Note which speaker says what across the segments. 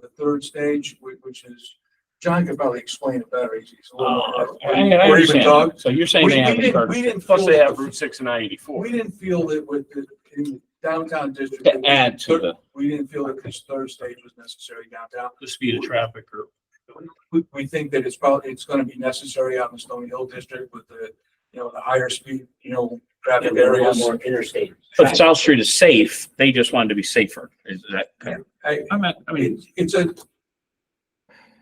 Speaker 1: third stage, whi- which is, John could probably explain it better. He's he's a
Speaker 2: Uh,
Speaker 1: little.
Speaker 2: I I
Speaker 1: Or even
Speaker 2: understand.
Speaker 1: Doug.
Speaker 2: So you're
Speaker 1: We
Speaker 2: saying they
Speaker 1: we
Speaker 2: have. a
Speaker 1: didn't, we
Speaker 2: curb
Speaker 1: didn't
Speaker 2: Plus
Speaker 1: feel
Speaker 2: they
Speaker 1: that
Speaker 2: have
Speaker 1: the-
Speaker 2: Route six and I eighty-four.
Speaker 1: We didn't feel that with the, in the downtown district.
Speaker 2: To add to the,
Speaker 1: We didn't feel that this third stage was necessary downtown.
Speaker 3: the speed of traffic or
Speaker 1: We, we think that it's probably, it's gonna be necessary out in the Stony Hill district with the, you know, the higher speed, you know,
Speaker 4: Yeah,
Speaker 1: traffic
Speaker 4: we want
Speaker 1: areas.
Speaker 4: More interstate.
Speaker 2: but South Street is safe. They just wanted to be safer. Is that?
Speaker 1: I,
Speaker 2: I meant, I mean,
Speaker 1: It's-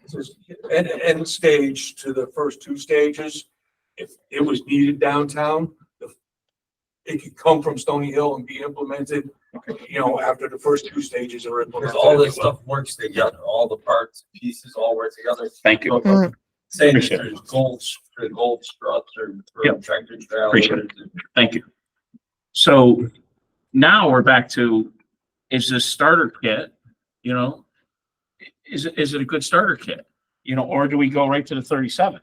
Speaker 1: It's a, it's a- an end stage to the first two stages. If it was needed downtown, the- it could come from Stony Hill and be implemented, you know, after the first two stages are
Speaker 5: Because
Speaker 1: implemented.
Speaker 5: all this stuff works together, all the parts, pieces all work together.
Speaker 2: thank you.
Speaker 5: Saying that
Speaker 2: Appreciate it.
Speaker 5: there's goals, the goal struts or for
Speaker 2: Yep.
Speaker 5: tractor trailers.
Speaker 2: Appreciate
Speaker 5: and-
Speaker 2: Thank you. So now we're back to, is this starter kit, you know? Is, it is it a good starter kit? You know, or do we go right to the thirty-seven?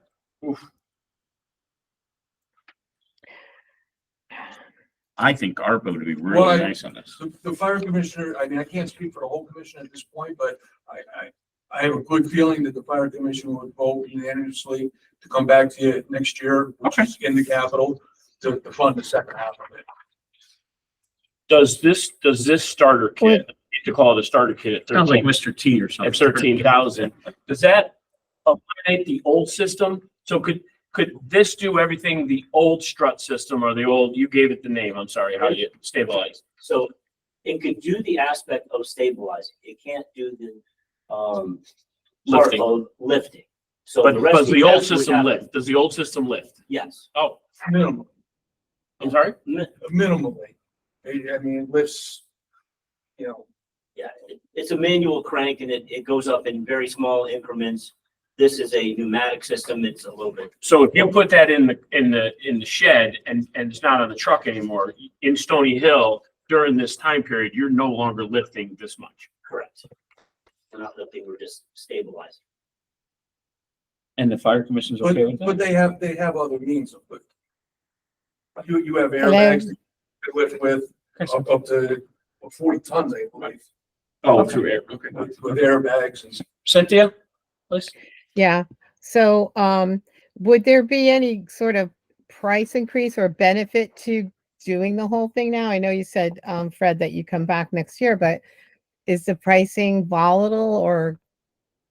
Speaker 2: I think ARPA would be
Speaker 1: Well, I-
Speaker 2: really nice on this.
Speaker 1: The, the fire commissioner, I mean, I can't speak for the whole commission at this point, but I, I, I have a good feeling that the fire commission would vote unanimously to come back to you next year, which
Speaker 2: Okay.
Speaker 1: is in the capital, to, to fund the second half of it.
Speaker 3: Does this, does this starter kit, you call it a starter kit at
Speaker 2: Sounds like
Speaker 3: thirteen,
Speaker 2: Mr. T or something.
Speaker 3: at thirteen thousand, does that eliminate the old system? So could, could this do everything the old strut system or the old, you gave it the name, I'm sorry, how you stabilize?
Speaker 4: So it could do the aspect of stabilizing. It can't do the, um, part
Speaker 3: Lifting.
Speaker 4: load lifting. So
Speaker 3: But
Speaker 4: the rest.
Speaker 3: does
Speaker 4: of
Speaker 3: the old
Speaker 4: task would
Speaker 3: system
Speaker 4: have-
Speaker 3: lift? Does the old system lift?
Speaker 4: Yes.
Speaker 3: Oh,
Speaker 1: Minimum.
Speaker 3: I'm sorry?
Speaker 4: Mi-
Speaker 1: minimally. I I mean, it lifts, you know,
Speaker 4: Yeah, it- it's a manual crank and it, it goes up in very small increments. This is a pneumatic system. It's a little bit,
Speaker 3: So if you put that in the, in the, in the shed and, and it's not on the truck anymore, in Stony Hill, during this time period, you're no longer lifting this much.
Speaker 4: correct. We're not lifting, we're just stabilizing.
Speaker 2: And the fire commission's
Speaker 1: but,
Speaker 2: okay with
Speaker 1: but
Speaker 2: that?
Speaker 1: they have, they have other means of lifting. You, you have airbags that you lift with up, up to forty tons, I believe,
Speaker 3: Oh, through air, okay.
Speaker 1: with, with airbags and
Speaker 2: Cynthia, please?
Speaker 6: Yeah, so, um, would there be any sort of price increase or benefit to doing the whole thing now? I know you said, um, Fred, that you come back next year, but is the pricing volatile or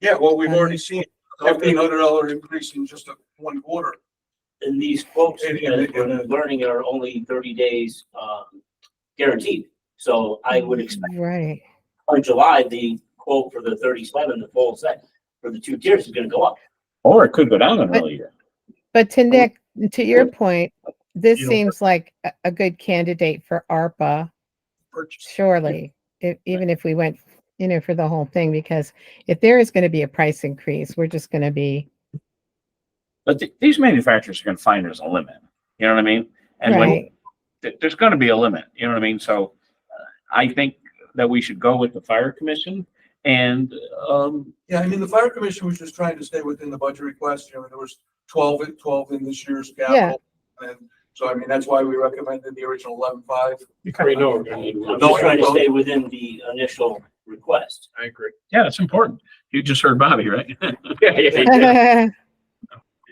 Speaker 1: Yeah, well, we've
Speaker 6: Um,
Speaker 1: already seen fifteen hundred dollar increase in just a one quarter.
Speaker 4: And these quotes
Speaker 1: And-
Speaker 4: that
Speaker 1: and-
Speaker 4: we're
Speaker 1: and-
Speaker 4: learning are only thirty days, um, guaranteed. So I would expect
Speaker 6: Right.
Speaker 4: by July, the quote for the thirty-seven, the full set for the two tiers is gonna go up.
Speaker 2: Or it could go down another year.
Speaker 6: But to Nick, to your point, this
Speaker 5: You know,
Speaker 6: seems like a, a good candidate for ARPA, surely. If, even if we went, you know, for the whole thing, because if there is gonna be a price increase, we're just gonna be,
Speaker 2: But th- these manufacturers are gonna find there's a limit, you know what I mean? And when,
Speaker 6: right?
Speaker 2: th- there's gonna be a limit, you know what I mean? So uh, I think that we should go with the fire commission and, um,
Speaker 1: Yeah, I mean, the fire commission was just trying to stay within the budget request, you know, there was 12 in- 12 in this year's capital. And so, I mean, that's why we recommended the original eleven-five.
Speaker 3: We know we're gonna need
Speaker 4: I'm
Speaker 3: one.
Speaker 1: No,
Speaker 4: just trying to
Speaker 1: no.
Speaker 4: stay within the initial request.
Speaker 3: I agree.
Speaker 2: yeah, it's important. You just heard Bobby, right?
Speaker 3: Yeah, yeah, yeah.
Speaker 6: Right,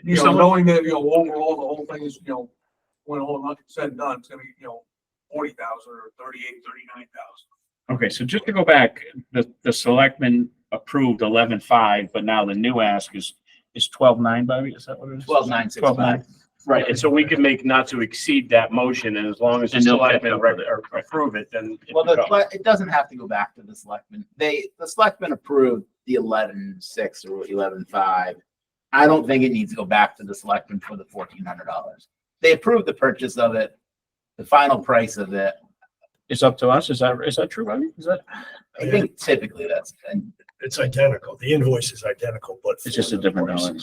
Speaker 1: you know,
Speaker 2: Someone-
Speaker 1: knowing that, you know, overall, the whole thing is, you know, when all not said and done, it's gonna be, you know, forty thousand or thirty-eight, thirty-nine thousand.
Speaker 2: Okay, so just to go back, the, the selectmen approved eleven five, but now the new ask is, is twelve nine, Bobby? Is that what it is?
Speaker 4: Twelve nine six
Speaker 2: Twelve nine.
Speaker 3: Right, and so we could make not to exceed that motion, and as long as the
Speaker 2: And they'll catch
Speaker 3: selectmen
Speaker 2: up with
Speaker 3: rec-
Speaker 2: it.
Speaker 3: or approve it, then. it
Speaker 7: Well, the,
Speaker 3: becomes-
Speaker 7: sele- it doesn't have to go back to the selectmen. They, the selectmen approved the eleven six or eleven five. I don't think it needs to go back to the selectmen for the fourteen hundred dollars. They approved the purchase of it, the final price of it.
Speaker 2: It's up to us. Is that, is that true, Bobby? Is that,
Speaker 7: I think typically that's, and
Speaker 8: It's identical. The invoice is identical, but.
Speaker 2: it's just a different dollar.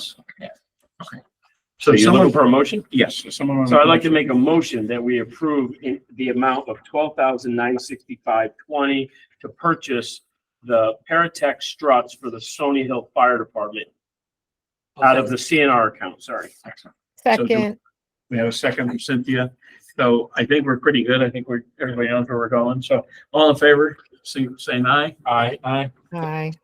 Speaker 3: So you're
Speaker 2: someone-
Speaker 3: looking for a motion?
Speaker 2: Yes, if someone. wanna-
Speaker 3: So I'd like to make a motion that we approve in the amount of twelve thousand nine sixty-five twenty to purchase the Paratech struts for the Stony Hill Fire Department out of the CNR account, sorry.
Speaker 2: Excellent. do-
Speaker 6: Second,
Speaker 2: We have a second from Cynthia. So I think we're pretty good. I think we're, everybody knows where we're going. So all in favor, say, saying aye?
Speaker 3: Aye.
Speaker 2: Aye.
Speaker 6: aye.